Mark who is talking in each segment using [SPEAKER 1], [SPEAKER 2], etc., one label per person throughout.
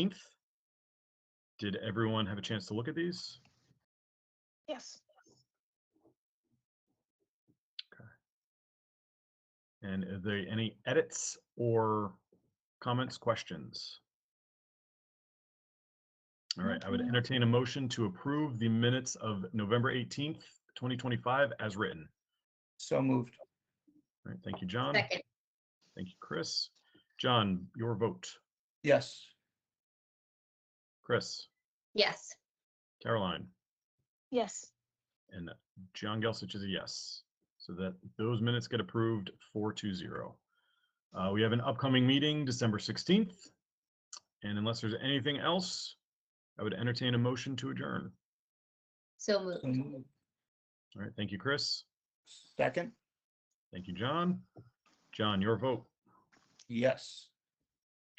[SPEAKER 1] 18th. Did everyone have a chance to look at these?
[SPEAKER 2] Yes.
[SPEAKER 1] And are there any edits or comments, questions? All right, I would entertain a motion to approve the minutes of November 18th, 2025 as written.
[SPEAKER 3] So moved.
[SPEAKER 1] All right, thank you,
[SPEAKER 2] Um,
[SPEAKER 1] John.
[SPEAKER 4] Second,
[SPEAKER 1] Thank you, Chris. John, your vote.
[SPEAKER 3] Yes.
[SPEAKER 1] Chris,
[SPEAKER 4] yes.
[SPEAKER 1] Caroline,
[SPEAKER 2] Yes.
[SPEAKER 1] and John Gelsich is a yes. So that those minutes get approved 420. Uh, we have an upcoming meeting, December 16th. And unless there's anything else, I would entertain a motion to adjourn.
[SPEAKER 4] So
[SPEAKER 3] So
[SPEAKER 4] moved.
[SPEAKER 3] moved.
[SPEAKER 1] All right, thank you, Chris.
[SPEAKER 3] Second?
[SPEAKER 1] Thank you, John. John, your vote.
[SPEAKER 3] Yes.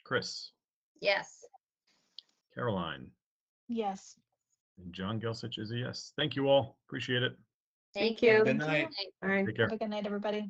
[SPEAKER 1] Chris,
[SPEAKER 4] Yes.
[SPEAKER 1] Caroline,
[SPEAKER 2] Yes.
[SPEAKER 1] and John Gelsich is a yes. Thank you all. Appreciate it.
[SPEAKER 4] Thank
[SPEAKER 2] you.
[SPEAKER 4] you.
[SPEAKER 3] Good night.
[SPEAKER 1] Take care.
[SPEAKER 2] Have a good night, everybody.